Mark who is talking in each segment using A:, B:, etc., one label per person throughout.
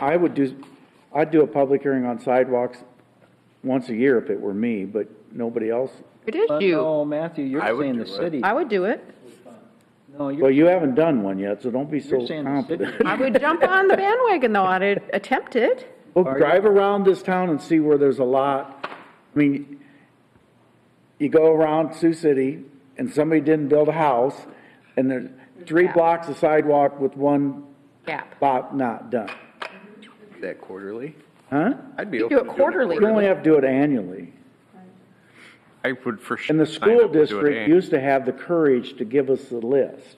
A: I would do, I'd do a public hearing on sidewalks once a year if it were me, but nobody else.
B: Good issue.
C: No, Matthew, you're
D: I would
C: saying the
D: do it.
C: city.
B: I would do it.
C: No,
A: Well,
C: you're,
A: you haven't done one yet, so don't be so
C: you're saying the
A: confident.
C: city.
B: I would jump on the bandwagon though, I'd attempt it.
A: Well,
C: Are you-
A: drive around this town and see where there's a lot, I mean, you go around Sioux City and somebody didn't build a house and there's three blocks of sidewalk with one
B: Gap.
A: lot not done,
D: That quarterly?
A: huh?
D: I'd be
B: You
D: open
B: do it
D: to doing
B: quarterly.
A: You only have to do it annually.
E: I would for sure.
A: And the
E: sign
A: school
E: up to do it
A: district
E: annually.
A: used to have the courage to give us the list.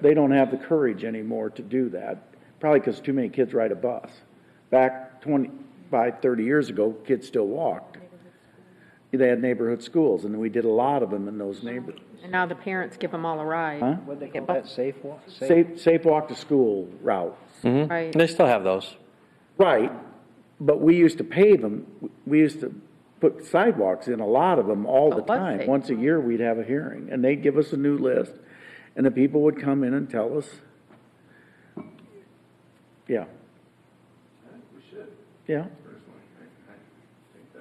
A: They don't have the courage anymore to do that, probably because too many kids ride a bus. Back 25, 30 years ago, kids still walked. They had neighborhood schools, and we did a lot of them in those neighborhoods.
B: And now the parents give them all a
A: Huh?
B: ride,
C: What'd they call that, safe walk?
A: Safe, safe walk to school route.
B: right?
F: They still have those.
A: Right, but we used to pave them, we used to put sidewalks in a lot of them all the
B: But was
A: time.
B: they?
A: Once a year, we'd have a hearing, and they'd give us a new list, and the people would come in and tell us. Yeah. Yeah,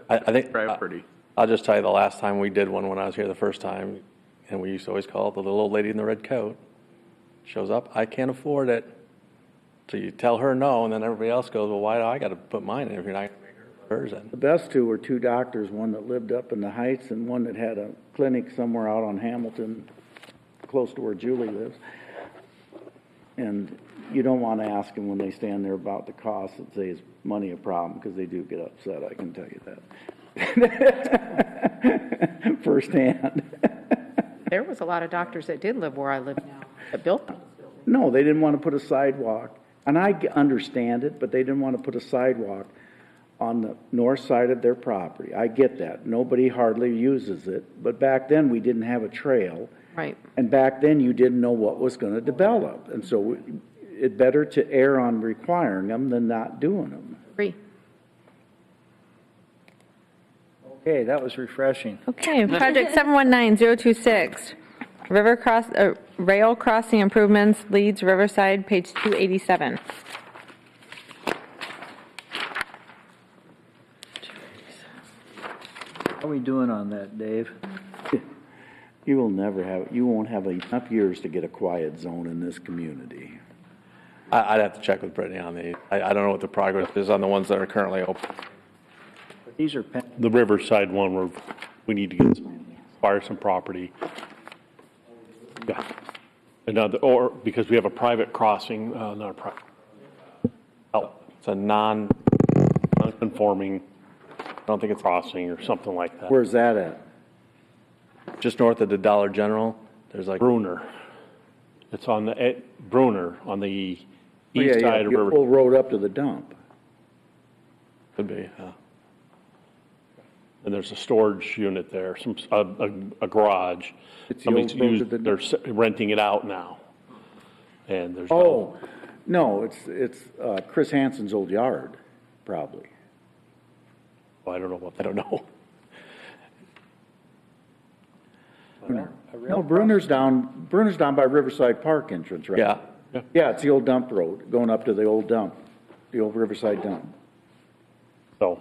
F: I, I think.
D: Right, pretty.
F: I'll just tell you, the last time we did one, when I was here the first time, and we used to always call it the little old lady in the red coat. Shows up, I can't afford it. So you tell her no, and then everybody else goes, well, why do I gotta put mine in if you're not gonna make her put hers in?
A: the best two were two doctors, one that lived up in the Heights and one that had a clinic somewhere out on Hamilton, close to where Julie lives. And you don't want to ask them when they stand there about the cost and say, is money a problem? Because they do get upset, I can tell you that. Firsthand.
B: There was a lot of doctors that did live where I live now, that built them.
A: No, they didn't want to put a sidewalk, and I g- understand it, but they didn't want to put a sidewalk on the north side of their property. I get that. Nobody hardly uses it, but back then, we didn't have a trail.
B: Right.
A: And back then, you didn't know what was going to develop, and so it better to err on requiring them than not doing them.
B: Free.
C: Okay, that was refreshing.
G: Okay, project 719026, river cross, uh, rail crossing improvements, Leeds Riverside, page 287.
C: How are we doing on that, Dave?
A: You will never have, you won't have enough years to get a quiet zone in this community.
F: I, I'd have to check with Brittany on the, I, I don't know what the progress is on the ones that are currently open.
C: These are pen,
H: the Riverside one, where we need to get, some- acquire some property. Yeah, Another, or, because we have a private crossing, uh, not a private,
F: Oh, It's a non,
H: non-conforming
F: I don't think it's,
H: crossing or something like that.
A: Where's that at?
F: just north of the Dollar General, there's like,
H: Bruner. It's on the, at Bruner, on the
A: Oh, Yeah,
H: east
A: yeah,
H: side of
A: the
H: Riverside.
A: Old road up to the dump.
F: could be, uh,
H: And there's a storage unit there, some, a, a- a garage.
A: It's the
H: Somebody's
A: old road to
H: used,
A: the-
H: they're s- renting it out now. And there's. no-
A: Oh, no, it's, it's uh, Chris Hansen's old yard, probably.
H: I don't know what, I don't know.
A: No, Bruner's down, Bruner's down by Riverside Park entrance, right?
F: yeah.
A: Yeah, it's the old dump road, going up to the old dump, the old Riverside dump.
H: So,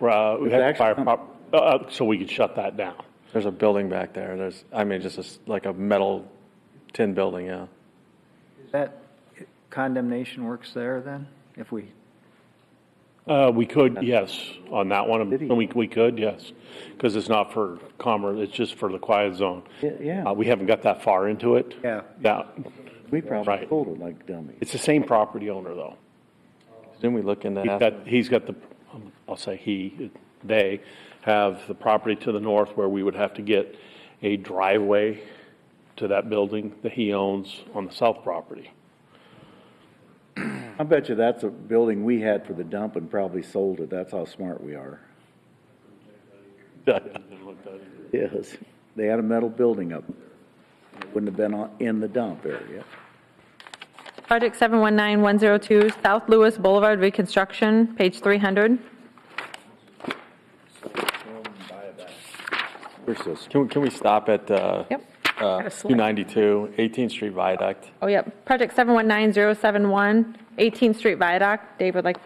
H: uh, we
A: It's
H: had
A: actually-
H: fire, prop- uh, uh, so we could shut that down.
F: There's a building back there, there's, I mean, just a s like a metal tin building, yeah.
C: is that condemnation works there then? If we,
H: Uh, we could, yes, on that one, we, we could, yes, because it's not for commerce, it's just for the quiet zone.
A: Y- yeah.
H: Uh, we haven't got that far into it.
C: Yeah.
H: Yeah,
A: We probably
H: Right.
A: pulled it like dummies.
H: it's the same property owner, though.
F: Didn't we look into
H: He's
F: that?
H: got, he's got the, um, I'll say he, they have the property to the north where we would have to get a driveway to that building that he owns on the south property.
A: I bet you that's a building we had for the dump and probably sold it, that's how smart we are. Yes, they had a metal building up, there. It wouldn't have been on- in the dump area.
G: Project 719102, South Lewis Boulevard reconstruction, page 300.
A: We're so smart.
F: Can, we- can we stop at, uh,
G: Yep.
B: Gotta slow-
F: 292, 18th Street Viaduct.
G: Oh, yep. Project 719071, 18th Street Viaduct. Dave would like